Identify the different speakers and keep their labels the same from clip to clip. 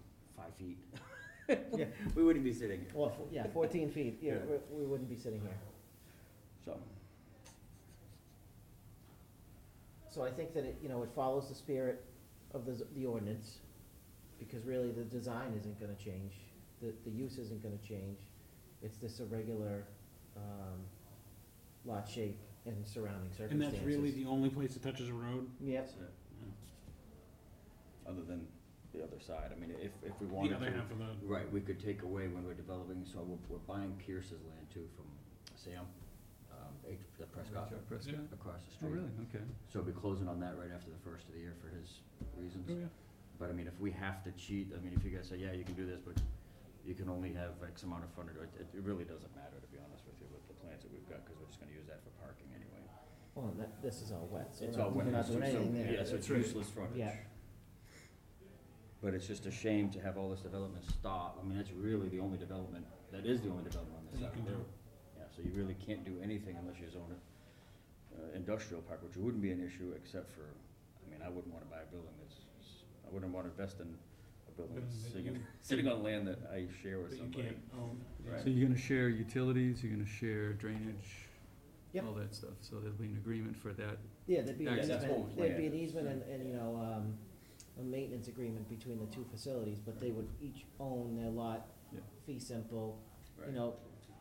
Speaker 1: feet.
Speaker 2: Yeah.
Speaker 1: We wouldn't be sitting here,
Speaker 2: Well, fo- yeah, fourteen feet, yeah,
Speaker 1: Yeah.
Speaker 2: we- we wouldn't be sitting here.
Speaker 1: so.
Speaker 2: So I think that it, you know, it follows the spirit of the, z- the ordinance, because really the design isn't gonna change, the, the use isn't gonna change. It's this irregular, um, lot shape and surrounding
Speaker 3: And
Speaker 2: circumstances.
Speaker 3: that's really the only place that touches a road?
Speaker 2: Yep,
Speaker 1: that's it. Other than the other side, I mean, if, if we
Speaker 3: The
Speaker 1: wanted
Speaker 3: other
Speaker 1: to.
Speaker 3: half of the,
Speaker 1: Right, we could take away when we're developing, so we're, we're buying Pierce's land too from Sam, um, H- the Prescott,
Speaker 3: Prescott?
Speaker 1: across the
Speaker 3: Oh,
Speaker 1: street.
Speaker 3: really? Okay.
Speaker 1: So we'll be closing on that right after the first of the year for his reasons.
Speaker 3: Oh, yeah.
Speaker 1: But I mean, if we have to cheat, I mean, if you guys say, yeah, you can do this, but you can only have X amount of frontage, it, it really doesn't matter, to be honest with you, with the plans that we've got, cause we're just gonna use that for parking anyway.
Speaker 2: well, that, this is all wet, so
Speaker 1: It's
Speaker 2: we're
Speaker 1: all
Speaker 2: not, we're
Speaker 1: wet,
Speaker 2: not
Speaker 1: so,
Speaker 2: doing anything there.
Speaker 1: yeah, so it's
Speaker 3: That's right.
Speaker 1: useless frontage.
Speaker 2: Yeah.
Speaker 1: But it's just a shame to have all this development stop, I mean, that's really the only development, that is the only development on this
Speaker 3: That you
Speaker 1: side
Speaker 3: can
Speaker 1: of the
Speaker 3: do.
Speaker 1: road. Yeah, so you really can't do anything unless you zone it, uh, industrial park, which wouldn't be an issue except for, I mean, I wouldn't wanna buy a building that's, I wouldn't wanna invest in a building
Speaker 3: Building
Speaker 1: that's
Speaker 3: that
Speaker 1: sitting,
Speaker 3: you-
Speaker 1: sitting on land Mm, that I share with
Speaker 3: That you
Speaker 1: somebody.
Speaker 3: can't own.
Speaker 1: Right.
Speaker 4: So you're gonna share utilities, you're gonna share drainage,
Speaker 2: Yep.
Speaker 4: all that stuff, so there'll be an agreement for that.
Speaker 2: Yeah, there'd be an
Speaker 4: Yeah,
Speaker 1: that's what
Speaker 2: easement,
Speaker 1: we
Speaker 2: there'd be an
Speaker 1: planned.
Speaker 2: easement and, and, you know, um, a maintenance agreement between the two facilities, but they would each own their lot,
Speaker 4: Yeah.
Speaker 2: fee simple,
Speaker 1: Right.
Speaker 2: you know,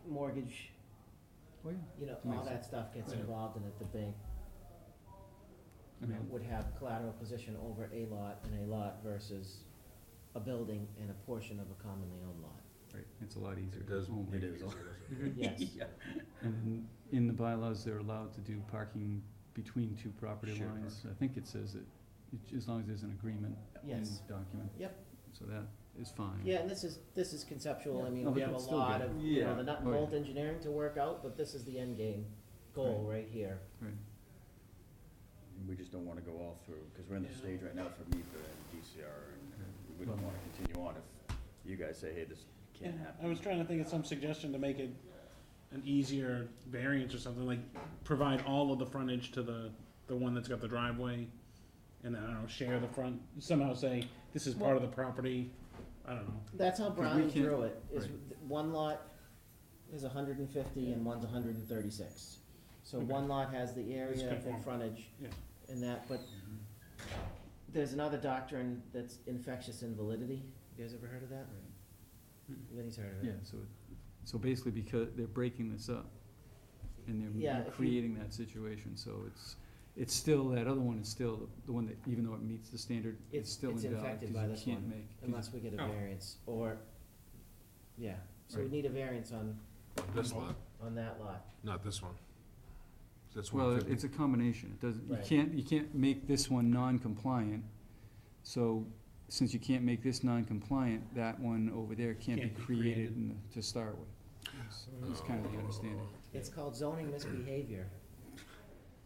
Speaker 2: mortgage,
Speaker 4: Oh, yeah.
Speaker 2: you know, all
Speaker 4: Makes
Speaker 2: that stuff gets
Speaker 3: Yeah.
Speaker 2: involved in it, the bank,
Speaker 4: I
Speaker 2: you know,
Speaker 4: mean,
Speaker 2: would have collateral position over a lot and a lot versus a building and a portion of a commonly owned lot.
Speaker 4: right, it's a lot easier.
Speaker 1: It does,
Speaker 4: only-
Speaker 1: it is.
Speaker 2: Yes.
Speaker 1: Yeah.
Speaker 4: And in the bylaws, they're allowed to do parking between two property
Speaker 1: Shared
Speaker 4: lines. I think it says it, it- as long as there's an agreement in
Speaker 2: Yes,
Speaker 4: the document.
Speaker 2: Yep.
Speaker 4: So that is fine.
Speaker 2: yeah, and this is, this is conceptual, I
Speaker 4: No,
Speaker 2: mean, we
Speaker 4: but
Speaker 2: have a
Speaker 4: that's still
Speaker 2: lot
Speaker 4: good.
Speaker 2: of, you know,
Speaker 1: Yeah.
Speaker 2: the nut and
Speaker 4: Oh, yeah.
Speaker 2: bolt engineering to work out, but this is the end game goal right here.
Speaker 4: Right,
Speaker 1: We just don't wanna go all through, cause we're in the
Speaker 3: Yeah.
Speaker 1: stage right now for MIPA and DCR, and we wouldn't
Speaker 4: Well-
Speaker 1: wanna continue on if you guys say, hey, this can't
Speaker 3: Yeah,
Speaker 1: happen.
Speaker 3: I was trying to think of some suggestion to make it an easier variance or something, like provide all of the frontage to the, the one that's got the driveway. And then, I don't know, share the front, somehow say, this is part of the property, I don't know.
Speaker 2: That's how
Speaker 4: we
Speaker 2: Brown
Speaker 4: can't-
Speaker 2: drew it, is
Speaker 4: right.
Speaker 2: th- one lot is hundred and fifty and one's hundred and thirty-six. So
Speaker 3: Okay.
Speaker 2: one lot has the area and
Speaker 3: conform.
Speaker 2: frontage
Speaker 3: Yeah.
Speaker 2: and that, but
Speaker 4: Mm-hmm.
Speaker 2: there's another doctrine that's infectious invalidity. You guys ever heard of that?
Speaker 4: right.
Speaker 2: Vinny's heard of
Speaker 4: Yeah,
Speaker 2: it.
Speaker 4: so, it- so basically because they're breaking this up and
Speaker 2: Yeah,
Speaker 4: they're-
Speaker 2: if
Speaker 4: they're
Speaker 2: you-
Speaker 4: creating that situation, so it's, it's still, that other one is still the one that, even though it meets the standard,
Speaker 2: It's-
Speaker 4: it's still
Speaker 2: it's
Speaker 4: invalid.
Speaker 2: infected
Speaker 4: 'cause
Speaker 2: by
Speaker 4: you
Speaker 2: this
Speaker 4: can't
Speaker 2: one,
Speaker 4: make- 'cause you-
Speaker 2: Unless we get a
Speaker 3: Oh.
Speaker 2: variance or, yeah, so we
Speaker 4: Right.
Speaker 2: need a variance on,
Speaker 5: This lot,
Speaker 2: on that lot.
Speaker 5: not this one. This
Speaker 4: Well,
Speaker 5: one
Speaker 4: it-
Speaker 5: could
Speaker 4: it's a combination, it doesn't, you
Speaker 2: Right.
Speaker 4: can't, you can't make this one non-compliant, so, since you can't make this non-compliant, that one over there can't be
Speaker 3: Can't be
Speaker 4: created
Speaker 3: created.
Speaker 4: in the- to start with. It's- It's kind of the understanding.
Speaker 2: It's called zoning misbehavior.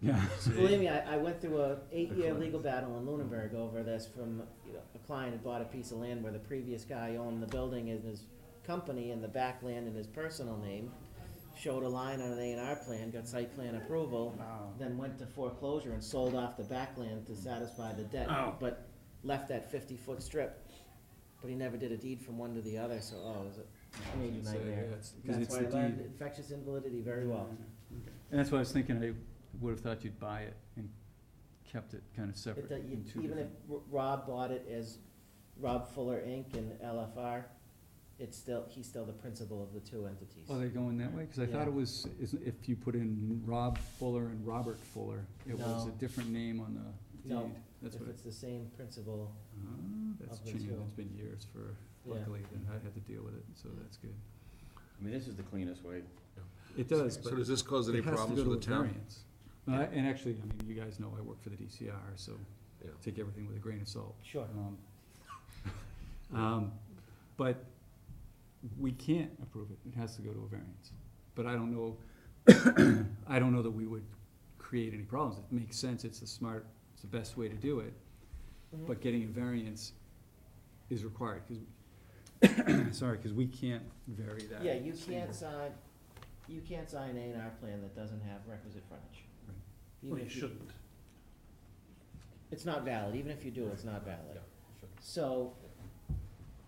Speaker 4: Yeah.
Speaker 2: Believe me, I, I went through a eight-year legal battle in Lunenburg over this from, you know, a client had bought a piece of land where the previous guy owned the building and his company and the back land in his personal name, showed a line on an A and R plan, got site plan approval, then went to foreclosure and sold off the back land to satisfy the debt,
Speaker 3: Oh.
Speaker 2: but left that fifty-foot strip. But he never did a deed from one to the other, so, oh, it was a major
Speaker 4: So, yeah,
Speaker 2: nightmare.
Speaker 4: it's- 'cause
Speaker 2: That's
Speaker 4: it's
Speaker 2: why I
Speaker 4: the
Speaker 2: learned
Speaker 4: deed.
Speaker 2: infectious invalidity very well.
Speaker 4: And that's why I was thinking, I would have thought you'd buy it and kept it kind of
Speaker 2: It,
Speaker 4: separate
Speaker 2: do- you-
Speaker 4: in two
Speaker 2: even if
Speaker 4: different.
Speaker 2: R- Rob bought it as Rob Fuller Inc. and LFR, it's still, he's still the principal of the two entities.
Speaker 4: Oh, they're going that way? Cause I thought
Speaker 2: Yeah.
Speaker 4: it was, is, if you put in Rob Fuller and Robert Fuller, it was a
Speaker 2: No.
Speaker 4: different name on the
Speaker 2: No,
Speaker 4: deed. That's
Speaker 2: If
Speaker 4: what,
Speaker 2: it's the same principal,
Speaker 4: Ah, that's
Speaker 2: Of the
Speaker 4: changed,
Speaker 2: two.
Speaker 4: it's been years for,
Speaker 2: yeah.
Speaker 4: luckily, then I had to deal with it, so that's good.
Speaker 1: I mean, this is the cleanest way.
Speaker 4: It
Speaker 5: be.
Speaker 4: does, but
Speaker 5: So does this cause any
Speaker 4: it has to
Speaker 5: problems
Speaker 4: go
Speaker 5: for
Speaker 4: to
Speaker 5: the
Speaker 4: a
Speaker 5: town?
Speaker 4: variance. No, I- And actually, I mean, you guys know I work for the DCR, so
Speaker 5: Yeah.
Speaker 4: take everything with a grain of salt.
Speaker 2: Sure.
Speaker 4: Um, um, But we can't approve it, it has to go to a variance. But I don't know, I don't know that we would create any problems. It makes sense, it's the smart, it's the best way to do it,
Speaker 2: Mhm.
Speaker 4: but getting a variance is required, because, sorry, because we can't vary that.
Speaker 2: Yeah, you
Speaker 4: standard.
Speaker 2: can't sign, you can't sign A and R plan that doesn't have requisite frontage.
Speaker 4: Right.
Speaker 2: Even
Speaker 3: Well, you
Speaker 2: if you-
Speaker 3: shouldn't.
Speaker 2: It's not valid, even if you do, it's not valid.
Speaker 5: shouldn't.
Speaker 2: So,